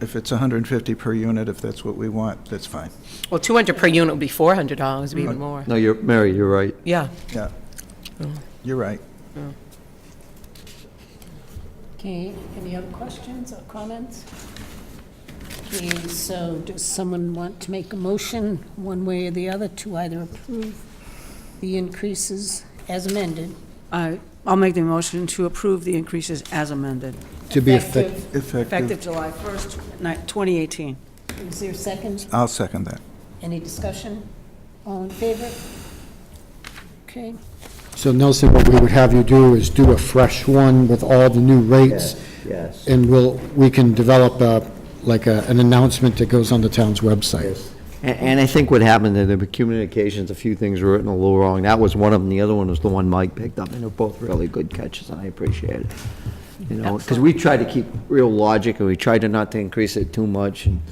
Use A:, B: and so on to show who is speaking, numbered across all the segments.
A: if it's 150 per unit, if that's what we want, that's fine.
B: Well, 200 per unit would be $400, would be even more.
C: No, you're, Mary, you're right.
B: Yeah.
A: Yeah. You're right.
D: Okay, any other questions or comments? Okay, so does someone want to make a motion, one way or the other, to either approve the increases as amended?
E: I- Uh, I'll make the motion to approve the increases as amended,
F: To be effective.
E: effective
A: Effective,
E: July 1st, ni- 2018.
D: Is there a second?
A: I'll second that.
D: Any discussion? All in favor? Okay,
F: So Nelson, what we would have you do is do a fresh one with all the new rates.
C: Yes.
F: And we'll, we can develop a, like a, an announcement that goes on the town's website.
C: And, and I think what happened, that there were communications, a few things were written a little wrong. That was one of them. The other one was the one Mike picked up, and they're both really good catches, and I appreciate it. You know, because we tried to keep real logic, and we tried to not to increase it too much, and,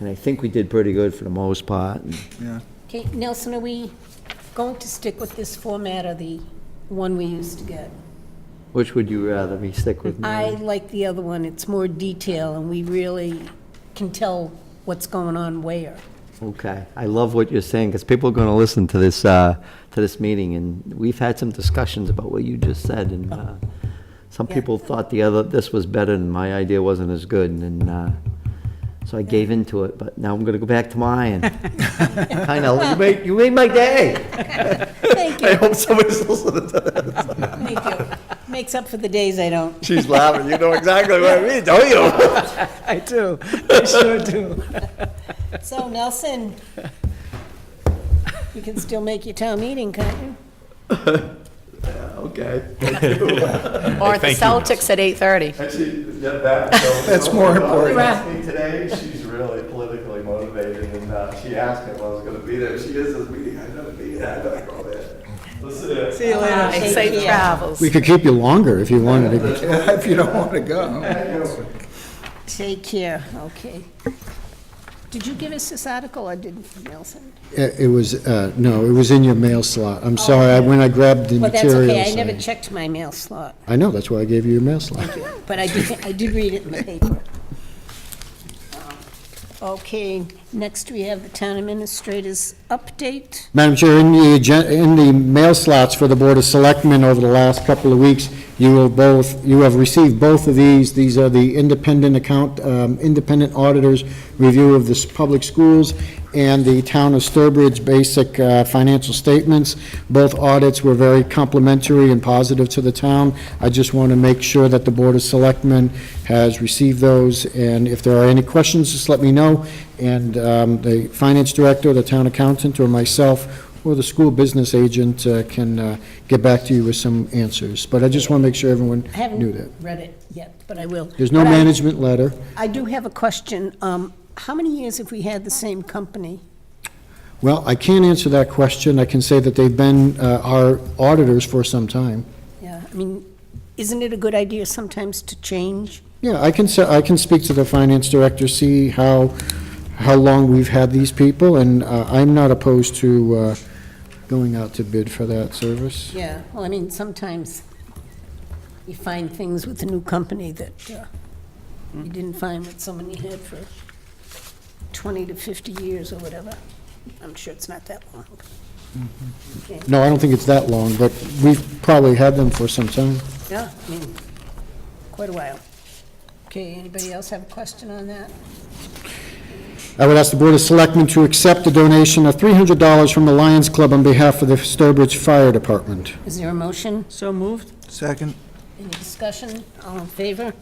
C: and I think we did pretty good for the most part. and-
A: Yeah.
D: okay, Nelson, are we going to stick with this format or the one we used to get?
C: Which would you rather, me stick with
D: I
C: Mary?
D: like the other one, it's more detail, and we really can tell what's going on where.
C: Okay, I love what you're saying, because people are going to listen to this, uh, to this meeting, and we've had some discussions about what you just said, and uh, some people thought the other, this was better, and my idea wasn't as good, and then, uh, so I gave into it, but now I'm going to go back to mine. I know, you made, you made my day.
D: Thank
C: I
D: you,
C: hope somebody's listening to this.
D: thank you. Makes up for the days I don't.
C: She's laughing, you know exactly what I mean, don't you?
E: I do, I sure do.
D: So Nelson, you can still make your town meeting, can't you?
C: Okay.
B: Or at the Celtics at 8:30.
G: Actually, yeah, that. so-
A: That's more important.
G: She asked me Today, she's really politically motivated, and uh, she asked me if I was gonna be there. She is this meeting, I'm gonna be there, I'm gonna go there. Listen to it.
E: See you later.
B: And safe travels.
F: We could keep you longer if you wanted to.
A: If you don't want to go.
D: Take care, okay. Did you give us this article or didn't Nelson?
F: It it was, uh, no, it was in your mail slot. I'm sorry, I- when I grabbed the
D: Oh, Well, that's
F: materials.
D: okay, I never checked my mail slot,
F: I know, that's why I gave you your mail slot.
D: but I did, I did read it in the paper. Um, Okay, next we have the town administrator's update.
F: Madam Chair, in the, agen- in the mail slots for the Board of Selectmen over the last couple of weeks, you will both, you have received both of these. These are the independent account, um, independent auditors review of the s- public schools and the town of Sturbridge basic uh, financial statements. Both audits were very complimentary and positive to the town. I just want to make sure that the Board of Selectmen has received those, and if there are any questions, just let me know. And um, the finance director, the town accountant, or myself, or the school business agent uh, can uh, get back to you with some answers. But I just want to make sure everyone
D: I
F: knew that.
D: haven't read it yet, but I will.
F: There's no
D: But I-
F: management letter.
D: I do have a question. Um, How many years have we had the same company?
F: Well, I can't answer that question. I can say that they've been uh, our auditors for some time.
D: Yeah, I mean, isn't it a good idea sometimes to change?
F: Yeah, I can, se- I can speak to the finance director, see how, how long we've had these people, and uh, I'm not opposed to uh, going out to bid for that service.
D: Yeah, well, I mean, sometimes you find things with a new company that uh, you didn't find with someone you had for 20 to 50 years or whatever. I'm sure it's not that long.
F: No, I don't think it's that long, but we've probably had them for some time.
D: Yeah, I mean, quite a while. Okay, anybody else have a question on that?
F: I would ask the Board of Selectmen to accept the donation of $300 from the Lions Club on behalf of the Sturbridge Fire Department.
D: Is there a motion?
E: So moved?
A: Second?
D: Any discussion? All in favor?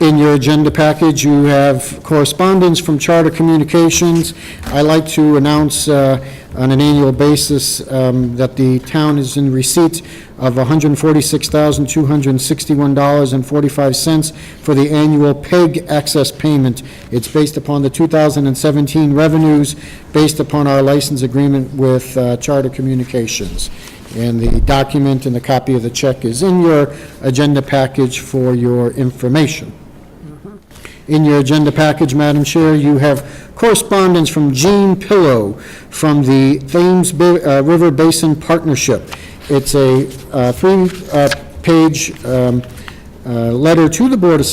F: In your agenda package, you have correspondence from Charter Communications. I like to announce uh, on an annual basis um, that the town is in receipt of $146,261.45 for the annual PEG access payment. It's based upon the 2017 revenues, based upon our license agreement with uh, Charter Communications. And the document and the copy of the check is in your agenda package for your information. In your agenda package, Madam Chair, you have correspondence from Gene Pillow from the Thames Ba- uh, River Basin Partnership. uh, It's a three-page um, uh, letter to the Board of